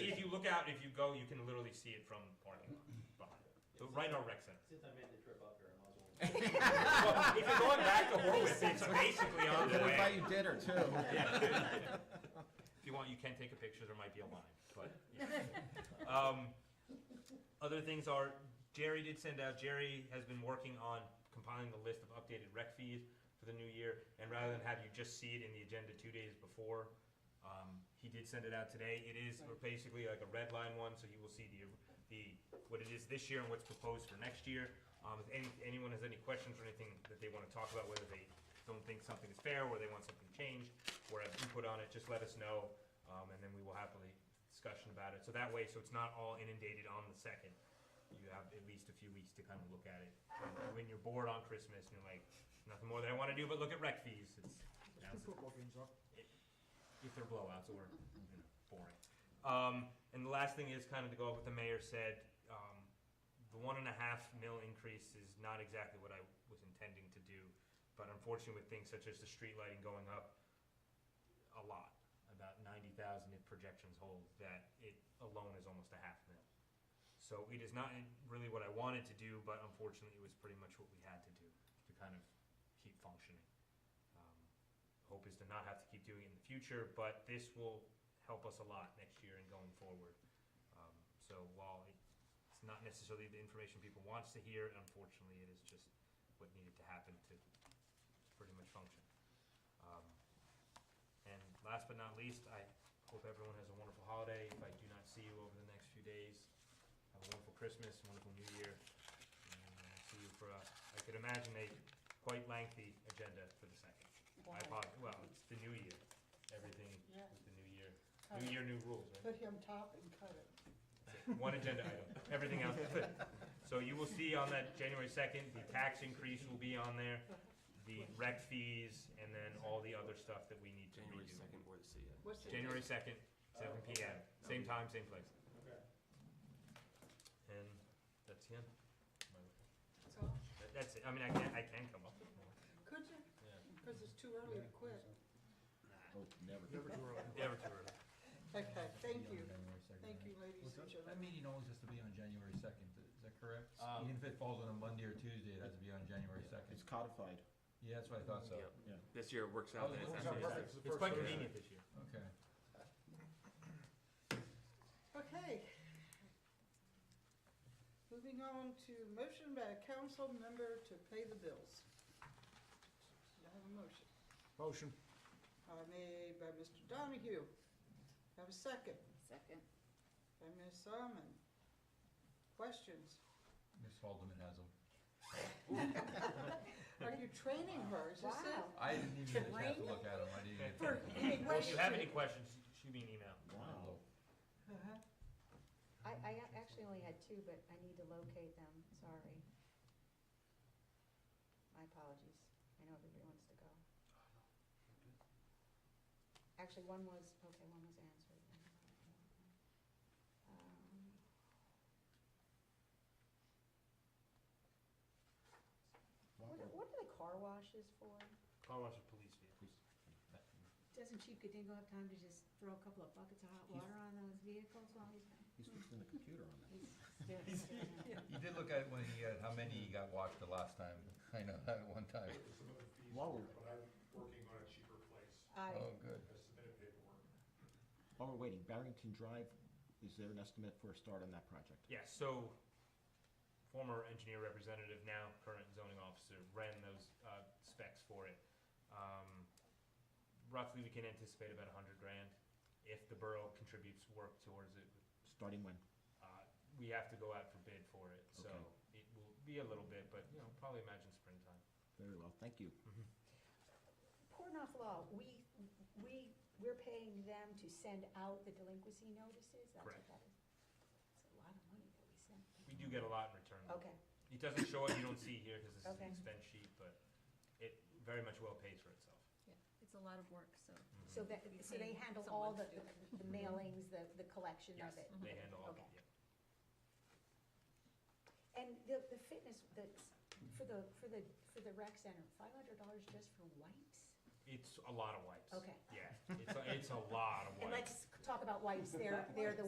look out, if you go, you can literally see it from the parking lot, behind, the right on rec center. Since I made the trip up here, I might as well. Well, If you're going back to Horwitz, it's basically on the We'll buy way. you dinner too. If you want, you can take a picture, there might be a line, but, yeah. Um, Other things are, Jerry did send out, Jerry has been working on compiling the list of updated rec fees for the new year, and rather than have you just see it in the agenda two days before, um, he did send it out today. It is basically like a red line one, so you will see the, the, what it is this year and what's proposed for next year. Um, if any, anyone has any questions or anything that they wanna talk about, whether they don't think something is fair, or they want something changed, or have input on it, just let us know, um, and then we will happily discussion about it. So that way, so it's not all inundated on the second. You have at least a few weeks to kind of look at it. And When you're bored on Christmas and you're like, nothing more that I wanna do but look at rec fees, it's, now's the if they're blowouts or you know, boring. Um, and the last thing is kind of to go up with the mayor said, um, the one and a half mil increase is not exactly what I was intending to do, but unfortunately with things such as the street lighting going up a lot, about ninety thousand if projections hold, that it alone is almost a half mil. So it is not really what I wanted to do, but unfortunately it was pretty much what we had to do to kind of keep functioning. Um, hope is to not have to keep doing it in the future, but this will help us a lot next year and going forward. Um, So while it- it's not necessarily the information people wants to hear, unfortunately, it is just what needed to happen to pretty much function. Um, And last but not least, I hope everyone has a wonderful holiday. If I do not see you over the next few days, have a wonderful Christmas, wonderful New Year. And I'll see you for, a- I could imagine a quite lengthy agenda for the second. I apologize, well, it's the new year, everything Yeah. with the new year, Cut new it. year, new rules, right? Put him top and cut it. One agenda item, everything else. So you will see on that January second, the tax increase will be on there, the rec fees, and then all the other stuff that we need to January redo. second, Board of C. E What's the January second, seven P M, same time, same place. And that's him. That's all. That- That's it, I mean, I can, I can come up with more. Could you? Because it's too early to quit. Oh, Never. Never too early. Okay, thank you. Thank you, ladies and That gentlemen. meeting always has to be on January second, is that correct? Um, Even if it falls on a Monday or Tuesday, it has to be on January It's second. codified. Yeah, that's what I thought so. Yeah. This year it works Oh, out. that it it's works out actually- perfect. It's quite convenient this year. Okay. Okay. Moving on to motion by a council member to pay the bills. Do I have a motion? Motion. Uh, Made by Mr. Donahue. Have a second Second. by Ms. Solomon. Questions? Ms. Haldeman has them. Are you training her? Is this it? Wow. I didn't even get a chance to look at them, I didn't even. For any Well, if you have any question? questions, shoot me an email. Wow. Uh-huh. I, I a- actually only had two, but I need to locate them, sorry. My apologies, I know everybody wants to go. Actually, one was, okay, one was answered. Um, What, what are the car washes for? Car wash with police vehicles. Doesn't Chief Kadingo have time to just throw a couple of buckets of hot He's- water on those vehicles while he's He's fixing the computer on that. been? He's still- He did look at when he, had how many he got watched the last time, I know, at one time. some other fees, While we're, but I'm working on a cheaper place. Oh, good. I submitted paperwork. while we're waiting, Barrington Drive, is there an estimate for a start on that project? Yeah, so former engineer representative, now current zoning officer, ran those uh, specs for it. Um, Roughly, we can anticipate about a hundred grand if the borough contributes work towards it. Starting when? Uh, We have to go out for bid for it, so Okay. it will be a little bit, but, you know, probably imagine springtime. Very well, thank you. Portnoy Law, we, we, we're paying them to send out the delinquency notices, that's Correct. what that is. It's a lot of money that we send. We do get a lot in return. though. Okay, It doesn't show it, you don't see here because this is an Okay. expense sheet, but it very much well pays for itself. Mm-hmm. It's a lot of work, so. so that, You're so they paying handle all someone the, to do the mailings, the, the collection of it? They handle all, Okay. yeah. And the, the fitness, the, for the, for the, for the rec center, five hundred dollars just for wipes? It's a lot of wipes. Okay. Yeah, it's, a- it's a lot of wipes. And let's talk about wipes, they're, they're the